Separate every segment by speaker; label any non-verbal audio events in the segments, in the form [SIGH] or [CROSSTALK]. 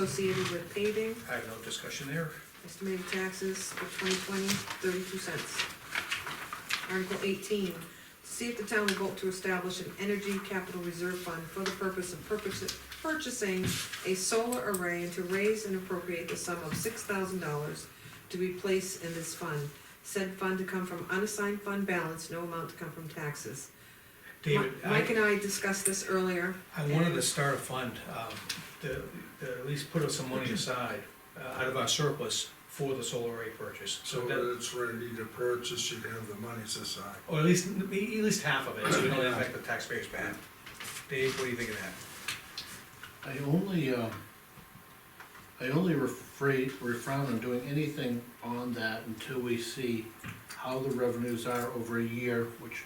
Speaker 1: associated with paving,
Speaker 2: I have no discussion there.
Speaker 1: estimated taxes for 2020, 32 cents. Article eighteen, to see if the town will vote to establish an energy capital reserve fund for the purpose of purpose- purchasing a solar array and to raise and appropriate the sum of six thousand dollars to be placed in this fund. Said fund to come from unassigned fund balance, no amount to come from taxes.
Speaker 2: David,
Speaker 1: Mi- Mike
Speaker 2: I,
Speaker 1: and I discussed this earlier.
Speaker 2: I wanted to start a fund, um, to, to at least put some money aside, uh, out of our surplus for the solar array purchase.
Speaker 3: So
Speaker 2: So
Speaker 3: when
Speaker 2: that,
Speaker 3: it's ready to purchase, you can have the monies aside.
Speaker 2: or at least, at least half of it, so we don't affect the taxpayers bad. Dave, what do you think of that?
Speaker 4: I only, um, I only refrain, refrain on doing anything on that until we see how the revenues are over a year, which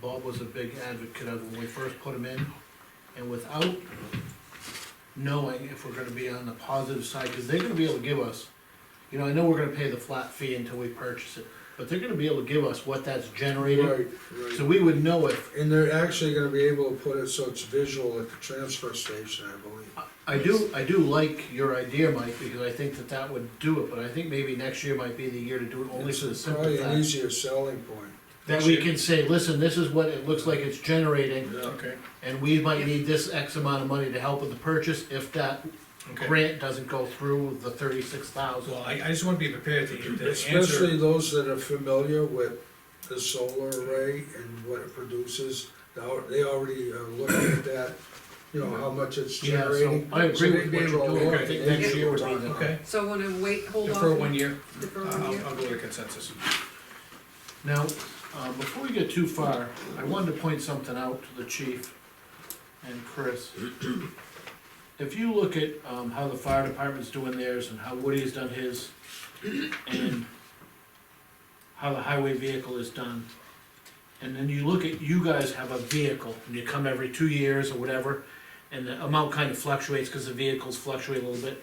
Speaker 4: Bob was a big advocate of when we first put them in. And without knowing if we're gonna be on the positive side, cause they're gonna be able to give us, you know, I know we're gonna pay the flat fee until we purchase it, but they're gonna be able to give us what that's generated. So
Speaker 3: right.
Speaker 4: we would know if
Speaker 3: And they're actually gonna be able to put it so it's visual at the transfer station, I believe.
Speaker 4: I do, I do like your idea, Mike, because I think that that would do it, but I think maybe next year might be the year to do it only for the
Speaker 3: It's
Speaker 4: simple
Speaker 3: Probably an
Speaker 4: fact.
Speaker 3: easier selling point.
Speaker 4: That we can say, listen, this is what it looks like it's generating,
Speaker 2: Okay.
Speaker 4: and we might need this X amount of money to help with the purchase if that
Speaker 2: Okay.
Speaker 4: grant doesn't go through with the thirty-six thousand.
Speaker 2: Well, I, I just wanna be prepared to, to
Speaker 3: Especially
Speaker 2: answer.
Speaker 3: those that are familiar with the solar array and what it produces, now, they already are looking at that, you know, how much it's
Speaker 4: Yeah, so
Speaker 3: generating.
Speaker 4: I agree
Speaker 3: So they'd
Speaker 4: with
Speaker 3: be
Speaker 4: what
Speaker 3: able
Speaker 4: you're
Speaker 3: to
Speaker 4: doing.
Speaker 3: look
Speaker 2: I think
Speaker 3: at it
Speaker 4: next year would be
Speaker 3: and
Speaker 4: the-
Speaker 2: Okay,
Speaker 1: So wanna wait, hold off?
Speaker 2: defer uh, one year,
Speaker 1: Defer one
Speaker 2: I'll,
Speaker 1: year?
Speaker 2: I'll go to consensus.
Speaker 4: Now, uh, before we get too far, I wanted to point something out to the chief and Chris. [CLEARS THROAT] If you look at, um, how the fire department's doing theirs and how Woody's done his, and how the highway vehicle is done, and then you look at, you guys have a vehicle, and you come every two years or whatever, and the amount kind of fluctuates, cause the vehicles fluctuate a little bit.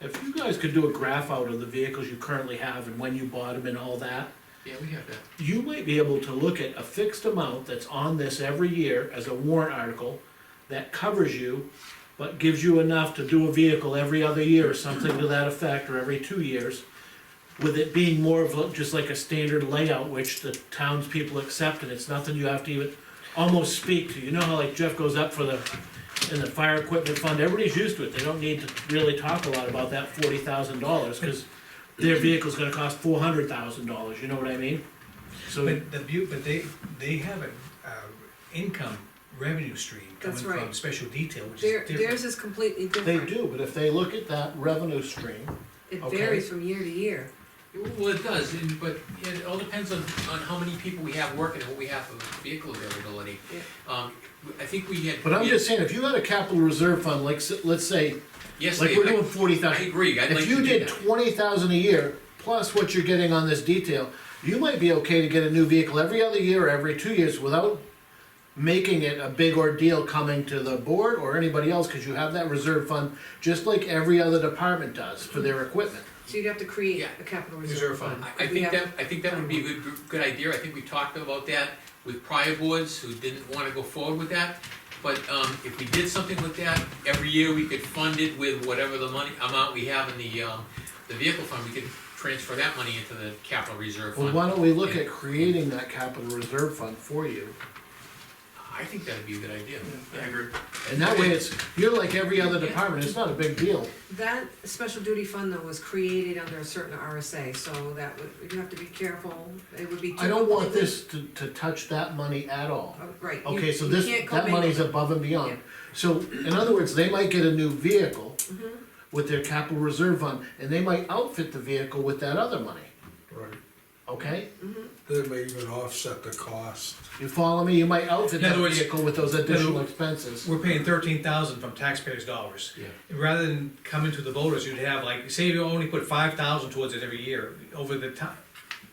Speaker 4: If you guys could do a graph out of the vehicles you currently have and when you bought them and all that,
Speaker 5: Yeah, we have that.
Speaker 4: you might be able to look at a fixed amount that's on this every year as a warrant article that covers you, but gives you enough to do a vehicle every other year or something to that effect, or every two years. With it being more of a- just like a standard layout, which the townspeople accept, and it's nothing you have to even almost speak to. You know how like Jeff goes up for the, in the fire equipment fund, everybody's used to it, they don't need to really talk a lot about that forty thousand dollars, cause their vehicle's gonna cost four hundred thousand dollars, you know what I mean? So.
Speaker 2: But the bu, but they, they have an, uh, income revenue stream coming
Speaker 1: That's
Speaker 2: from
Speaker 1: right.
Speaker 2: special detail, which is
Speaker 1: Their,
Speaker 2: different.
Speaker 1: theirs is completely
Speaker 4: They
Speaker 1: different.
Speaker 4: do, but if they look at that revenue stream,
Speaker 1: It
Speaker 4: Okay.
Speaker 1: varies from year to year.
Speaker 5: Well, it does, and, but it all depends on, on how many people we have working and what we have of vehicle availability.
Speaker 1: Yeah.
Speaker 5: Um, I think we had.
Speaker 4: but I'm just saying, if you had a capital reserve fund, like, s- let's say,
Speaker 5: Yes,
Speaker 4: like
Speaker 5: Dave,
Speaker 4: we're
Speaker 5: I-
Speaker 4: doing forty
Speaker 5: I
Speaker 4: thousand.
Speaker 5: agree, I'd like
Speaker 4: If
Speaker 5: to
Speaker 4: you
Speaker 5: do
Speaker 4: did
Speaker 5: that.
Speaker 4: twenty thousand a year, plus what you're getting on this detail, you might be okay to get a new vehicle every other year, or every two years, without making it a big ordeal coming to the board or anybody else, cause you have that reserve fund, just like every other department does for their equipment.
Speaker 1: So you'd have to create
Speaker 5: Yeah.
Speaker 1: a capital
Speaker 2: Reserve
Speaker 1: reserve
Speaker 2: fund.
Speaker 1: fund.
Speaker 5: I, I
Speaker 1: If we
Speaker 5: think that,
Speaker 1: have-
Speaker 5: I think that would be a good, good idea, I think we talked about that with prior boards who didn't wanna go forward with that. But, um, if we did something with that, every year we could fund it with whatever the money, amount we have in the, um, the vehicle fund, we could transfer that money into the capital reserve
Speaker 4: Well,
Speaker 5: fund.
Speaker 4: why don't we look at creating that capital reserve fund for you?
Speaker 5: I think that'd be a good idea. I agree.
Speaker 4: And that way it's, you're like every other department, it's not a big deal.
Speaker 1: That special duty fund though was created under a certain RSA, so that would, you'd have to be careful, it would be.
Speaker 4: I don't want this to, to touch that money at all.
Speaker 1: Oh, Right. you-
Speaker 4: Okay, so
Speaker 1: you
Speaker 4: this,
Speaker 1: can't
Speaker 4: that
Speaker 1: commingle
Speaker 4: money's
Speaker 1: them.
Speaker 4: above and beyond.
Speaker 1: Yeah.
Speaker 4: So, in other words, they might get a new vehicle
Speaker 1: Mm-hmm.
Speaker 4: with their capital reserve fund, and they might outfit the vehicle with that other money,
Speaker 3: Right,
Speaker 4: okay?
Speaker 3: they may even offset the cost.
Speaker 4: You follow me? You might outfit
Speaker 2: In other
Speaker 4: that
Speaker 2: words-
Speaker 4: vehicle with those
Speaker 2: No.
Speaker 4: additional expenses.
Speaker 2: We're paying thirteen thousand from taxpayers' dollars.
Speaker 5: Yeah.
Speaker 2: Rather than coming to the voters, you'd have like, say you only put five thousand towards it every year, over the time,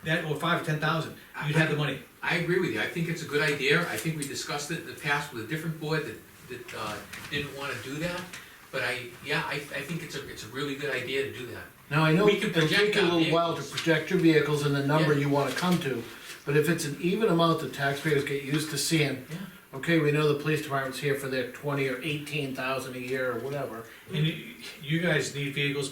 Speaker 2: that, or five, ten thousand, you'd have the money.
Speaker 5: I agree with you, I think it's a good idea, I think we discussed it in the past with a different board that, that, uh, didn't wanna do that. But I, yeah, I, I think it's a, it's a really good idea to do that.
Speaker 4: Now, I know
Speaker 5: We can
Speaker 4: it'll
Speaker 5: project
Speaker 4: take you a
Speaker 5: our
Speaker 4: little while to
Speaker 5: vehicles.
Speaker 4: project your vehicles and the number
Speaker 5: Yeah.
Speaker 4: you wanna come to, but if it's an even amount that taxpayers get used to seeing,
Speaker 5: Yeah.
Speaker 4: okay, we know the police department's here for their twenty or eighteen thousand a year or whatever.
Speaker 2: And you, you guys need vehicles